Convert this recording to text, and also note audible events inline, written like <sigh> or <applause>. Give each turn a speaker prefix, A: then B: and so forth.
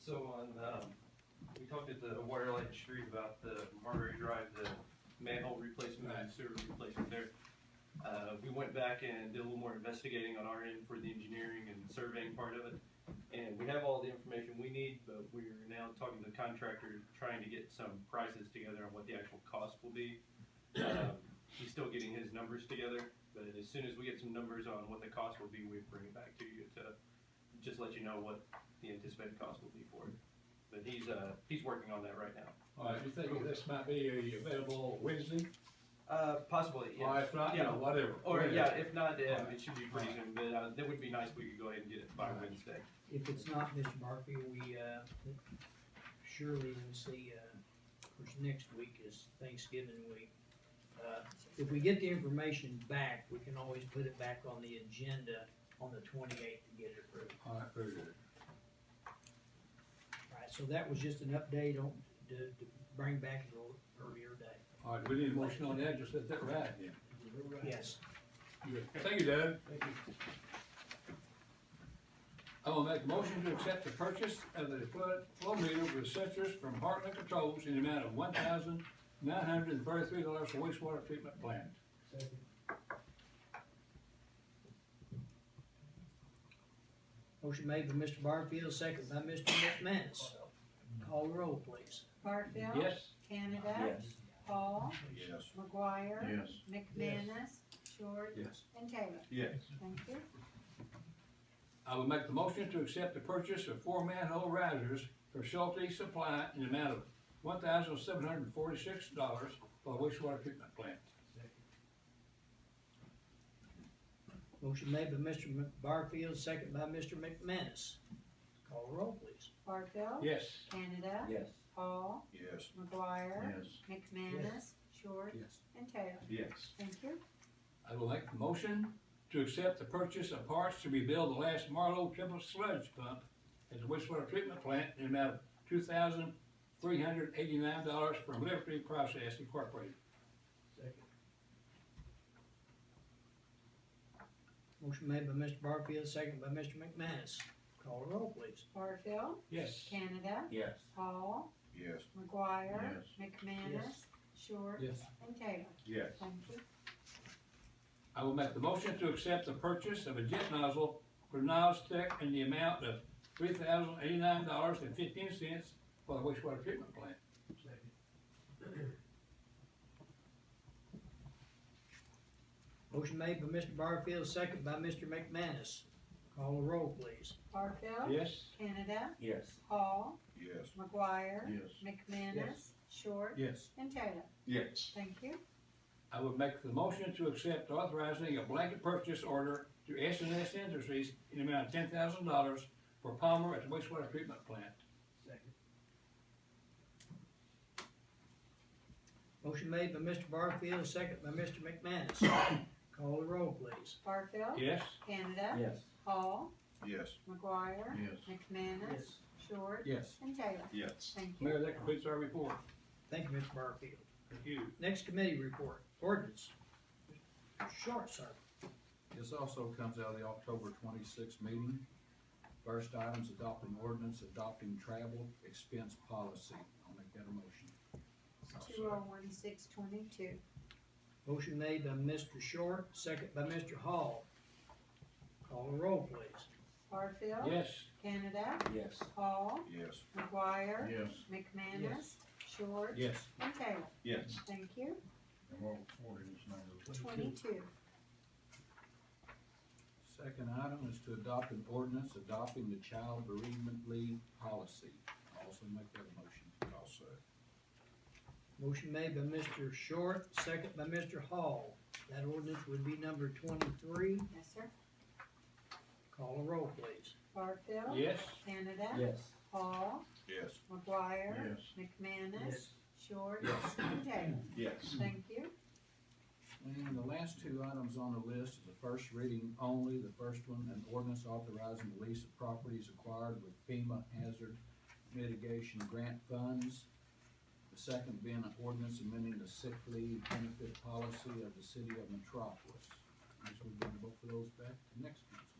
A: So on, um, we talked at the Waterlight Street about the Marbury Drive, the manhole replacement and sewer replacement there. Uh, we went back and did a little more investigating on our end for the engineering and surveying part of it. And we have all the information we need, but we're now talking to the contractor, trying to get some prices together on what the actual cost will be. Um, He's still getting his numbers together, but as soon as we get some numbers on what the cost will be, we bring it back to you to just let you know what the anticipated cost will be for it. But he's, uh, he's working on that right now.
B: All right, you think this might be available Wednesday?
A: Uh, possibly,
B: All
A: yes.
B: right, if not, you know, whatever.
A: Or, yeah,
B: Whatever.
A: if not, um, it should be pretty soon, but, uh, that would be nice if we could go ahead and get it by
B: Alright.
A: Wednesday.
C: If it's not Mr. Murphy, we, uh, surely will see, uh, of course, next week is Thanksgiving week. Uh, If we get the information back, we can always put it back on the agenda on the twenty-eighth to get it approved.
B: All right, very good.
C: All right, so that was just an update on, to, to bring back to the earlier day.
B: All right, we need a motion on that, just let that ride then.
C: Yes.
B: Good. Thank you, Doug. I will make a motion to accept the purchase of the flood flow meter with sensors from Hartland Controls in the amount of one thousand nine hundred and thirty-three dollars for wastewater treatment plant.
C: Motion made by Mr. Barfield, second by Mr. McManus. Call the roll, please.
D: Barfield.
B: Yes?
D: Canada. Paul. McGuire.
B: Yes.
D: McManus. Short.
E: Yes.
D: And Taylor.
E: Yes.
D: Thank you.
B: I will make the motion to accept the purchase of four manhole risers for Schulte Supply in the amount of one thousand seven hundred and forty-six dollars for wastewater treatment plant.
C: Motion made by Mr. M- Barfield, second by Mr. McManus. Call the roll, please.
D: Barfield.
B: Yes.
D: Canada.
E: Yes.
D: Paul.
E: Yes.
D: McGuire.
E: Yes.
D: McManus. Short.
E: Yes.
D: And Taylor.
E: Yes.
D: Thank you.
B: I will make the motion to accept the purchase of parts to rebuild the last Marlow triple sludge pump at the wastewater treatment plant in the amount of two thousand three hundred eighty-nine dollars from Liberty Process Incorporated.
C: Motion made by Mr. Barfield, second by Mr. McManus. Call the roll, please.
D: Barfield.
B: Yes.
D: Canada.
E: Yes.
D: Paul.
E: Yes.
D: McGuire. McManus. Short.
E: Yes.
D: And Taylor.
E: Yes.
D: Thank you.
B: I will make the motion to accept the purchase of a jet nozzle for Niles Tech in the amount of three thousand eighty-nine dollars and fifteen cents for the wastewater treatment plant.
C: Motion made by Mr. Barfield, second by Mr. McManus. Call the roll, please.
D: Barfield.
B: Yes?
D: Canada.
E: Yes.
D: Paul.
E: Yes.
D: McGuire.
E: Yes.
D: McManus. Short.
E: Yes.
D: And Taylor.
E: Yes.
D: Thank you.
B: I would make the motion to accept authorizing a blanket purchase order to S and S Industries in the amount of ten thousand dollars for Palmer at the wastewater treatment plant.
C: Motion made by Mr. Barfield, second by Mr. McManus.
E: <coughs>
C: Call the roll, please.
D: Barfield.
B: Yes?
D: Canada.
E: Yes.
D: Paul.
E: Yes.
D: McGuire.
E: Yes.
D: McManus. Short.
E: Yes.
D: And Taylor.
E: Yes.
D: Thank you.
B: Mayor, that completes our report.
C: Thank you, Mr. Barfield.
B: Thank you.
C: Next committee report, ordinance. Short, sir.
F: This also comes out of the October twenty-sixth meeting. First item's adopting ordinance, adopting travel expense policy. I'll make that a motion.
D: Two oh one six twenty-two.
C: Motion made by Mr. Short, second by Mr. Hall. Call the roll, please.
D: Barfield.
B: Yes?
D: Canada.
E: Yes.
D: Paul.
E: Yes.
D: McGuire.
E: Yes.
D: McManus. Short.
B: Yes.
D: And Taylor.
E: Yes.
D: Thank you.
E: And what ordinance number?
D: Twenty-two.
F: Second item is to adopt an ordinance, adopting the child bereavement leave policy. I'll also make that a motion.
E: I'll say.
C: Motion made by Mr. Short, second by Mr. Hall. That ordinance would be number twenty-three.
D: Yes, sir.
C: Call the roll, please.
D: Barfield.
B: Yes?
D: Canada.
E: Yes.
D: Paul.
E: Yes.
D: McGuire.
E: Yes.
D: McManus. Short.
E: Yes.
D: And Taylor.
E: Yes.
D: Thank you.
F: And the last two items on the list is the first reading only, the first one, an ordinance authorizing the lease of properties acquired with FEMA hazard mitigation grant funds. The second being an ordinance amending the sick leave benefit policy of the city of Metropolis. As we've done both of those back to next council.